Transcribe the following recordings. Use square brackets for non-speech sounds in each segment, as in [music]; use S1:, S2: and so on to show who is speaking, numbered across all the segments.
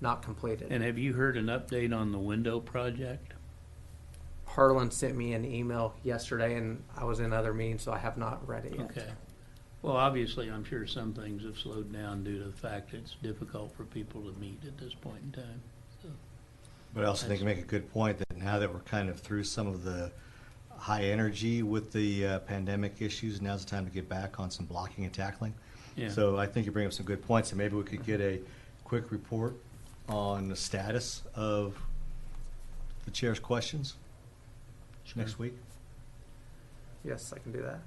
S1: not completed.
S2: And have you heard an update on the window project?
S1: Harlan sent me an email yesterday and I was in other meetings, so I have not read it yet.
S2: Okay. Well, obviously, I'm sure some things have slowed down due to the fact it's difficult for people to meet at this point in time.
S3: But I also think you make a good point that now that we're kind of through some of the high energy with the uh, pandemic issues, now's the time to get back on some blocking and tackling.
S2: Yeah.
S3: So I think you bring up some good points, and maybe we could get a quick report on the status of the chair's questions next week.
S1: Yes, I can do that.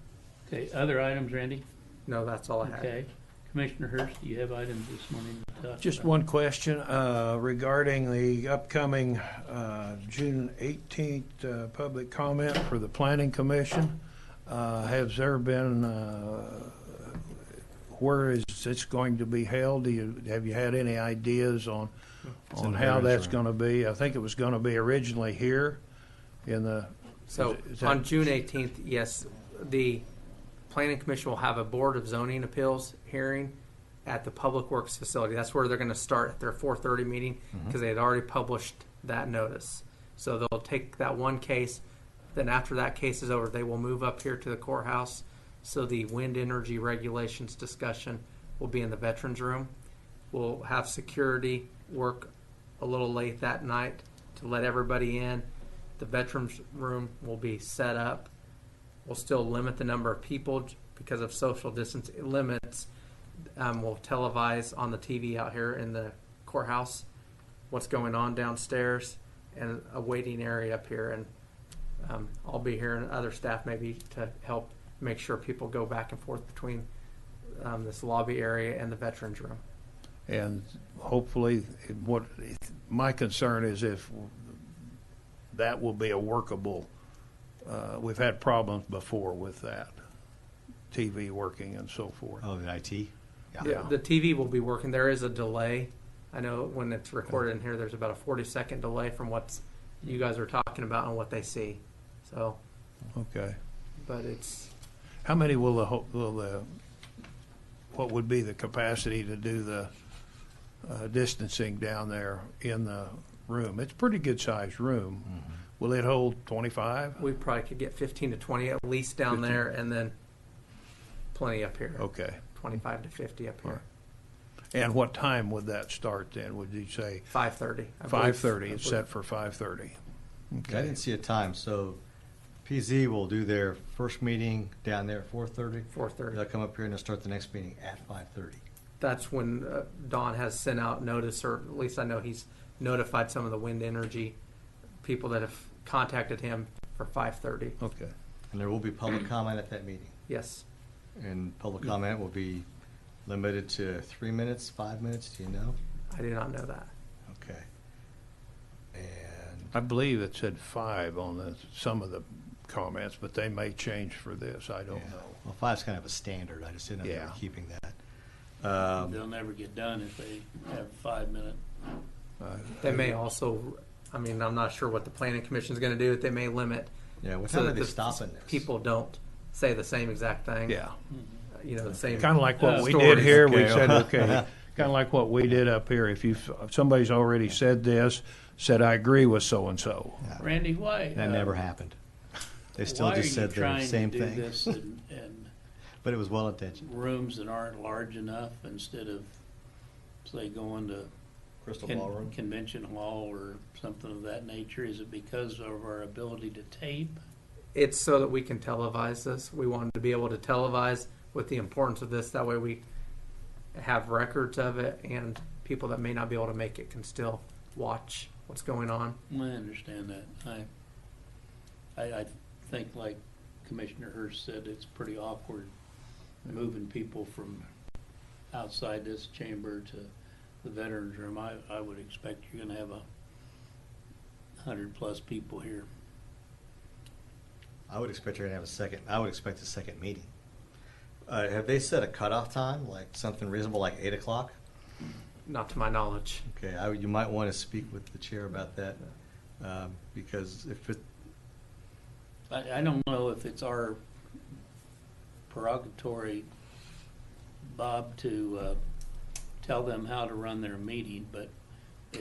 S2: Okay, other items, Randy?
S1: No, that's all I had.
S2: Okay. Commissioner Hurst, do you have items this morning Uh, to talk about?
S4: Just one question uh, regarding the upcoming uh, June 18th uh, public comment for the Planning Commission. Uh, Has there been, uh, where is this going to be held? Do you, have you had any ideas on,
S3: It's in
S4: on
S3: the
S4: how
S3: variance
S4: that's
S3: room.
S4: going to be? I think it was going to be originally here in the,
S1: So
S4: Is it- is
S1: on
S4: that-
S1: June eighteenth, yes, the planning commission will have a board of zoning appeals hearing at the public works facility. That's where they're gonna start at their four thirty meeting,
S4: Mm-hmm.
S1: because they had already published that notice. So they'll take that one case, then after that case is over, they will move up here to the courthouse. So the wind energy regulations discussion will be in the veterans room. We'll have security work a little late that night to let everybody in. The veterans room will be set up. We'll still limit the number of people j- because of social distance limits. Um, we'll televise on the TV out here in the courthouse what's going on downstairs and a waiting area up here. And um, I'll be here and other staff maybe to help make sure people go back and forth between um, this lobby area and the veterans room.
S4: and hopefully, what, my concern is if that will be a workable, uh, we've had problems before with that, TV working and so forth.
S3: Oh, the IT?
S1: The, the TV will be working. There is a delay. I know when it's recorded in here, there's about a 40 second delay from what you guys are talking about and what they see. So,
S4: Okay.
S1: but it's
S4: How many will the, ho- will the, what would be the capacity to do the uh, distancing down there in the room? It's a pretty good-sized room. Will it hold 25?
S1: we probably could get 15 to 20 at least down
S4: 15.
S1: there, and then plenty up here.
S4: Okay.
S1: 25 to 50 up here.
S4: And what time would that start then? Would you say
S1: 5:30. I believe.
S4: 5:30?
S1: I
S4: It's
S1: believe.
S4: set for 5:30.
S3: I didn't see a time, so PZ will do their first meeting down there at 4:30.
S1: 4:30.
S3: They'll come up here and they'll start the next meeting at 5:30.
S1: that's when uh, Don has sent out notice, or at least I know he's notified some of the wind energy people that have contacted him for 5:30.
S4: Okay.
S3: And there will be public comment at that meeting.
S1: Yes.
S3: And public comment will be limited to three minutes, five minutes, do you know?
S1: I do not know that.
S3: Okay. And,
S4: I believe it said five on the, some of the comments, but they may change for this. I don't
S3: yeah.
S4: know.
S3: well, five's kind of a standard, I just didn't know if they were
S4: Yeah.
S3: keeping that. Um,
S2: They'll never get done if they have a five-minute.
S4: Uh,
S1: They may also, I mean, I'm not sure what the planning commission is going to do. They may limit
S3: Yeah, what
S1: so
S3: time are
S1: that
S3: they
S1: the
S3: stopping this?
S1: people don't say the same exact thing.
S4: Yeah.
S2: Mm-hmm.
S1: You know, the same.
S4: Kind of like what
S2: Uh,
S4: we
S1: stories.
S4: did here, we
S3: Okay.
S4: said, okay, kind of like what we did up here. If you, if somebody's already said this, said, I agree with so-and-so.
S2: Randy, why?
S3: That
S2: uh,
S3: never happened. They still just said the same
S2: Why are you trying to do
S3: thing,
S2: this in, in
S3: [laughs] but it was well intentioned.
S2: rooms that aren't large enough instead of, say, going to
S3: Crystal
S2: con- convention hall or something of that nature? Is it because of our ability to tape?
S1: It's so that we can televise this. We wanted to be able to televise with the importance of this. That way we have records of it and people that may not be able to make it can still watch what's going on.
S2: I understand that. I, I, I think like Commissioner Hurst said, it's pretty awkward moving people from outside this chamber to the veterans room. I, I would expect you're gonna have a hundred-plus people here.
S3: I would expect you're gonna have a second, I would expect a second meeting. Uh, have they set a cutoff time, like something reasonable, like eight o'clock?
S1: Not to my knowledge.
S3: Okay, I, would- you might wanna speak with the chair about that, um, because if it,
S2: I, I don't know if it's our prerogatory, Bob, to, uh, tell them how to run their meeting, but